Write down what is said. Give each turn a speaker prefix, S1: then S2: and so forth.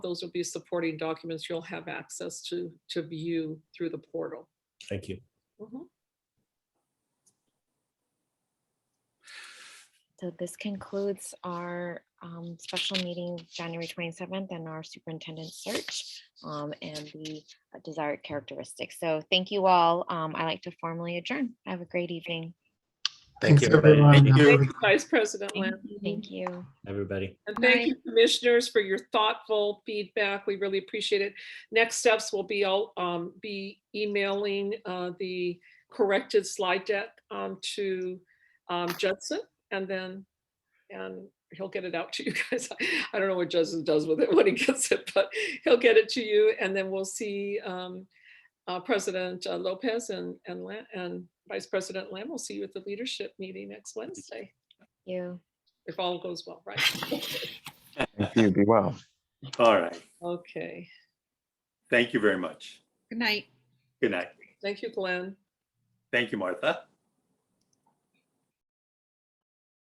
S1: Those will be supporting documents you'll have access to, to view through the portal.
S2: Thank you.
S1: Mhm.
S3: So this concludes our um, special meeting, January 27th, and our superintendent search um, and the desired characteristics. So thank you all. Um, I like to formally adjourn. Have a great evening.
S4: Thanks,
S2: Thank you, everybody.
S4: everyone.
S2: Thank you.
S1: Thank you, Vice President Lamb.
S3: Thank you.
S2: Everybody.
S1: And thank you, commissioners, for your thoughtful feedback. We really appreciate it. Next steps will be, I'll um, be emailing uh, the corrected slide deck um, to um, Judson and then, and he'll get it out to you guys. I don't know what Judson does with it when he gets it, but he'll get it to you and then we'll see um, uh, President uh, Lopez and, and Lam- and Vice President Lamb. We'll see you at the leadership meeting next Wednesday,
S3: You.
S1: if all goes well, right?
S4: Thank you. Be well.
S5: All right.
S1: Okay.
S5: Thank you very much.
S6: Good night.
S5: Good night.
S1: Thank you, Glenn.
S5: Thank you, Martha.